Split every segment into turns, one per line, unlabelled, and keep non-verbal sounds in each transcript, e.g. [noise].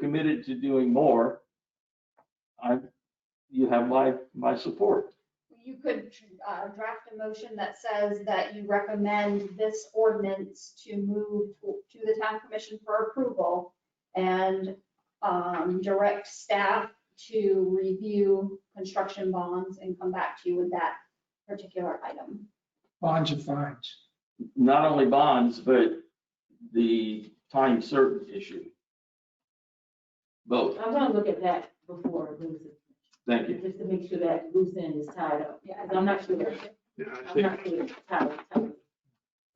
committed to doing more, I, you have my, my support.
You could uh, draft a motion that says that you recommend this ordinance to move to to the town commission for approval and um, direct staff to review construction bonds and come back to you with that particular item.
bonds and fines.
Not only bonds, but the time certain issue. Both,
I'm gonna look at that before I lose it.
thank you.
Just to make sure that loose end is tied up.
Yeah.
Because I'm not sure.
Yeah, I
I'm
think, I
not sure it's tied up. tied up.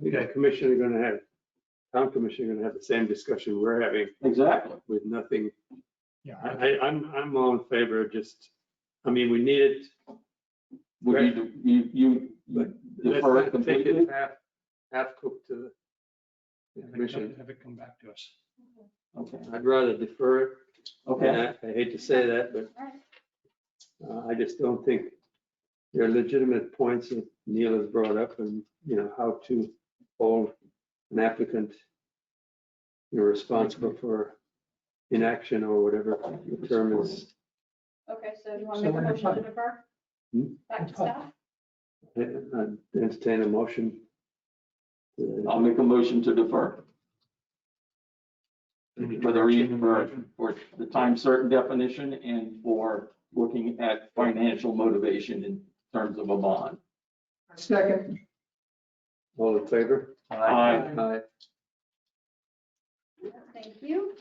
think that commission are gonna have, town commission are gonna have the same discussion we're having
Exactly.
with nothing.
Yeah,
I, I, I'm, I'm all in favor of just, I mean, we need it,
Would you, do- you, you-
but
you
let's
defer it
not take
completely?
it half, half cooked to
Have it
the
come-
commission.
have it come back to us.
Okay,
I'd rather defer it.
okay.
And I I hate to say that, but uh, I just don't think there are legitimate points that Neil has brought up and, you know, how to hold an applicant you're responsible for inaction or whatever the term is.
Okay, so you want
So
to make a
we're
motion to
done.
defer?
uh, Hmm?
Back to staff?
I I'd Entertain a motion. Uh,
I'll make a motion to defer for the reason, for, for the time certain definition and for looking at financial motivation in terms of a bond.
Second.
All in favor?
Aye.
Aye.
Thank you.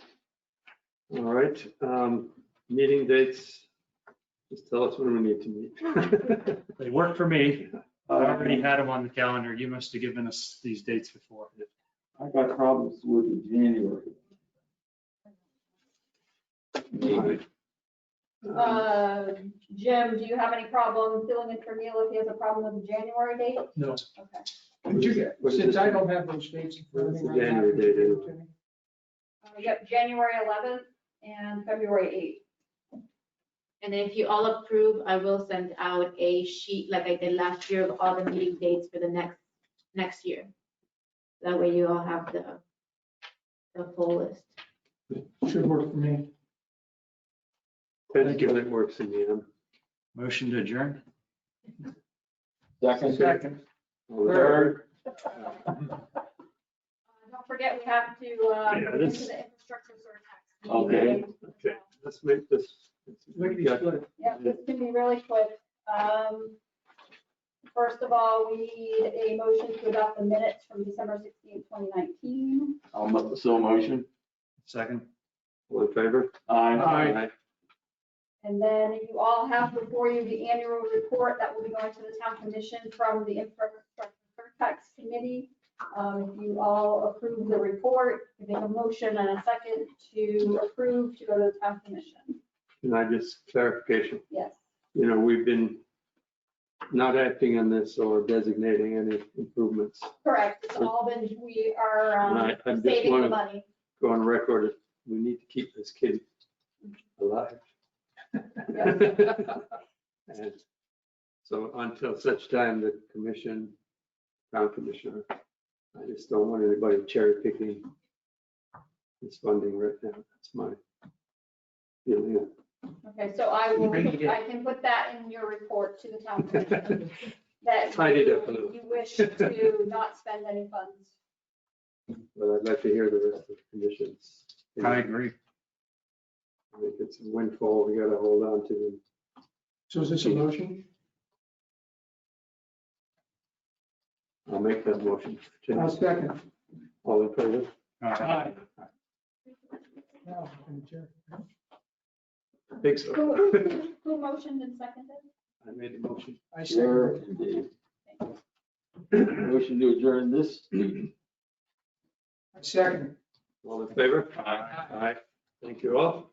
All right, um, meeting dates. Just tell us when we need to meet. [laughs]
They work for me. I already
I
had them on the calendar. You must have given us these dates before.
got problems with the January. Maybe.
Um,
Uh, Jim, do you have any problem filling in for Neil if he has a problem with the January date?
No.
Okay.
Would you get,
What is
since
this?
I don't have those dates in front of me
What's
right
the
now.
January
would you
date,
give it to me?
Uh, Yep, January 11th and February [laughs]
And if you all approve, I will send out a sheet like I did last year of all the meeting dates for the next, next year. That way you all have the, the full list.
Should work for me.
Depends when it works in the end.
Motion to adjourn?
Second.
Second.
All in favor?
Third.
eighth. Uh, Don't forget, we have to, uh,
Yeah,
into the
this-
infrastructure surtax.
Okay.
Okay, let's make this.
Lickety split.
Yeah, this can be really quick. Um, First of all, we need a motion to adopt the minutes from December 16th, 2019.
I'll mo- so motion.
Second?
All in favor?
Aye.
Aye.
And then you all have before you the annual report that will be going to the town commission from the infrastructure tax committee. Um, if you all approve the report, you make a motion and a second to approve to go to the town commission.
Can I just clarification?
Yes.
You know, we've been not acting on this or designating any improvements.
Correct. It's all been, we are, um,
I- I just
saving the
wanted-
money.
Go on record, we need to keep this kid alive. And so until such time, the commission, town commissioner, I just don't want anybody cherry picking this funding right now. That's my feeling. [laughs]
Okay, so I will,
Bring it in.
I can put that in your report to the town commission.
[laughs]
That
Tidy it up a little.
You wish to not spend any
[laughs]
funds.
But I'd like to hear the rest of the conditions.
I
I
agree.
think it's a windfall we gotta hold on to.
So is this a motion?
I'll make that motion.
I'll second.
All in favor?
All right.
Now, I'm gonna adjourn.
I think so.
Who, who- who motioned and seconded?
I made the motion.
I
Sure,
second.
indeed. Motion to adjourn this. meeting.
I second.
All in favor? Aye. Thank you all.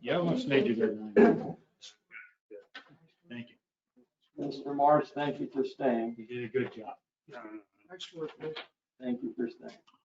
You almost made your
[coughs]
deadline. Thank you.
Mr. Marsh, thank you for staying.
You did a good job.
Next word.
Thank you for staying.